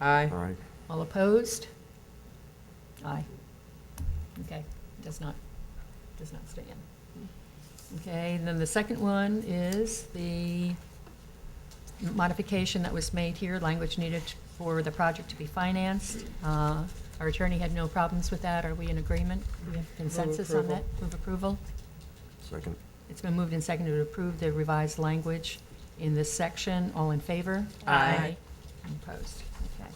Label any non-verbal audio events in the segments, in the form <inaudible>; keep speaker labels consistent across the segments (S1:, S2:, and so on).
S1: Aye.
S2: All right.
S3: All opposed? Aye. Okay, does not, does not stand. Okay, and then the second one is the modification that was made here, language needed for the project to be financed. Uh, Our attorney had no problems with that. Are we in agreement? We have consensus on that? Move approval?
S2: Second.
S3: It's been moved and seconded to approve the revised language in this section. All in favor?
S1: Aye.
S3: Opposed? Okay.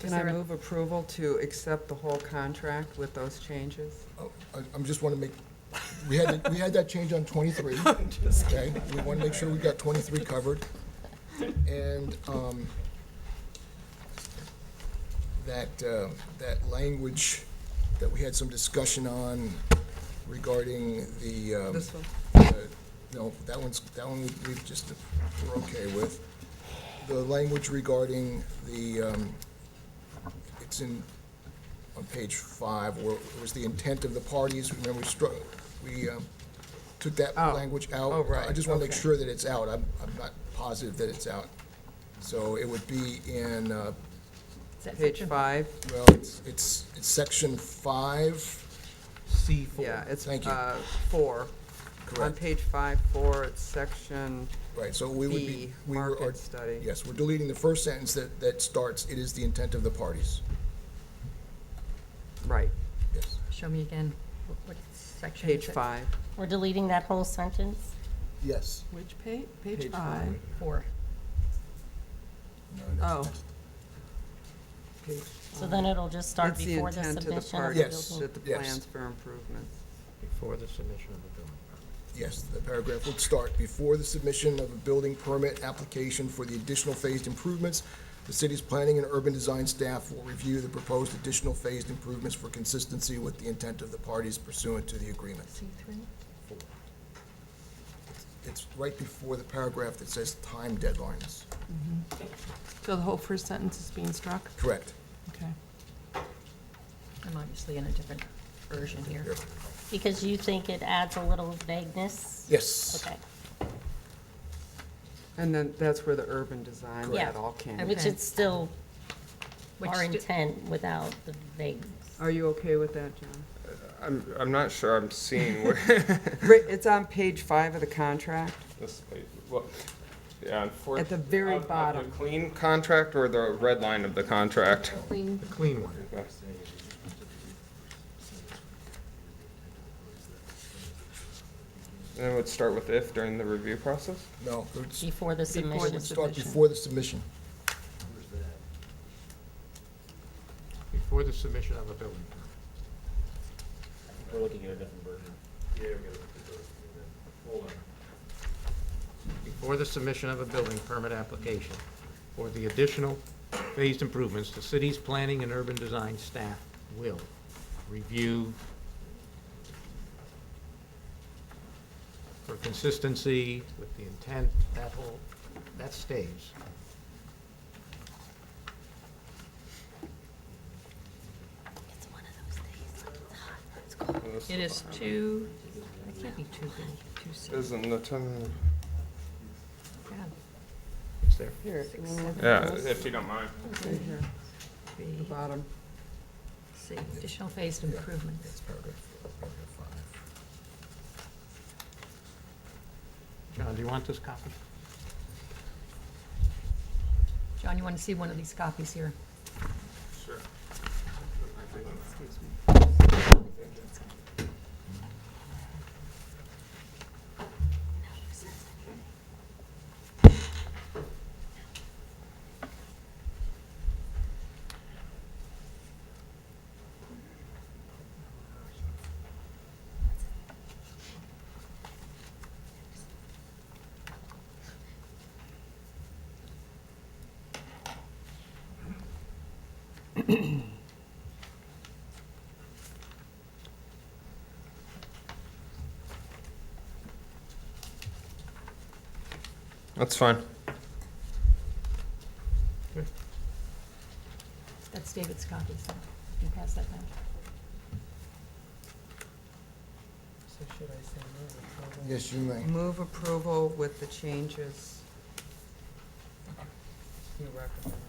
S1: Can
S3: Is
S1: I
S3: there a-
S1: move approval to accept the whole contract with those changes?
S4: Oh, I, I'm just want to make, we had, we had that change on twenty-three. Okay, we want to make sure we got twenty-three covered. And, um, that, uh, that language that we had some discussion on regarding the, um.
S1: This one?
S4: the- No, that one's, that one we- we've just, we're okay with. The language regarding the, um, it's in on page five, where it was the intent of the parties, remember, we struck, we um, took that
S1: Oh.
S4: language out.
S1: Oh, right,
S4: I just want to make
S1: okay.
S4: sure that it's out, I'm, I'm not positive that it's out. So it would be in, uh,
S3: Is that
S1: Page
S3: section-
S1: five?
S4: well, it's, it's it's section five,
S5: C four.
S1: Yeah, it's
S4: Thank you.
S1: uh, four. On
S4: correct?
S1: page five, four, it's section,
S4: Right, so we would be.
S1: B,
S4: we were-
S1: market study.
S4: Yes, we're deleting the first sentence that, that starts, it is the intent of the parties.
S1: right,
S4: Yes,
S3: Show me again, Wh- what section is
S1: page
S3: it?
S1: five.
S6: We're deleting that whole sentence?
S4: yes.
S1: Which page? Page five.
S3: Four.
S4: No, that's-
S1: Oh.
S4: that's-
S1: Page
S6: So then it'll just start
S1: It's the
S6: before the
S1: intent of the
S6: submission of the
S4: Yes.
S1: parties
S6: building.
S1: that the
S4: Yes.
S1: plans for improvements.
S5: Before the submission of the building permit.
S4: Yes, the paragraph would start, before the submission of a building permit application for the additional phased improvements, the city's planning and urban design staff will review the proposed additional phased improvements for consistency with the intent of the parties pursuant to the agreement.
S3: C three?
S4: It's right before the paragraph that says time deadlines.
S7: So the whole first sentence is being struck?
S4: Correct.
S7: Okay.
S3: I'm obviously in a different version here.
S4: Here.
S6: Because you think it adds a little vagueness?
S4: Yes.
S6: Okay.
S1: And then that's where the urban design,
S6: Yeah.
S1: that all came.
S6: Which it's still
S3: Which
S6: our
S3: sti-
S6: intent without the vagueness.
S1: Are you okay with that, John?
S8: I'm, I'm not sure I'm seeing where <laughs>
S1: Ri- It's on page five of the contract.
S8: this, well, yeah, unfortunately.
S1: At the very bottom.
S8: The clean contract or the red line of the contract?
S5: The clean one.
S8: Then it would start with if during the review process?
S4: No, it would s-
S6: Before the
S1: Before
S6: submission.
S1: the
S4: would start
S1: submission.
S4: before the submission.
S5: Before the submission of a building permit.
S9: We're looking at a different version. Yeah, we're looking at Hold on.
S5: Before the submission of a building permit application for the additional phased improvements, the city's planning and urban design staff will review for consistency with the intent, that whole, that stays.
S6: It's one of those days, like, it's hot, it's cold.
S8: This
S3: It is two, it can't be two B, two C.
S8: Isn't the time,
S3: Yeah,
S5: It's there.
S1: Here, you wanna look at
S8: yeah,
S1: this?
S8: if you don't mind.
S1: Right here, the
S3: B,
S1: bottom.
S3: C, additional phased improvements.
S4: That's paragraph, paragraph five.
S5: John, do you want this copy?
S3: John, you want to see one of these copies here?
S8: Sure.
S1: Excuse me.
S8: That's fine.
S3: That's David's copy, so you can pass that down.
S1: So should I say move approval?
S4: Yes, you may.
S1: Move approval with the changes you recommend.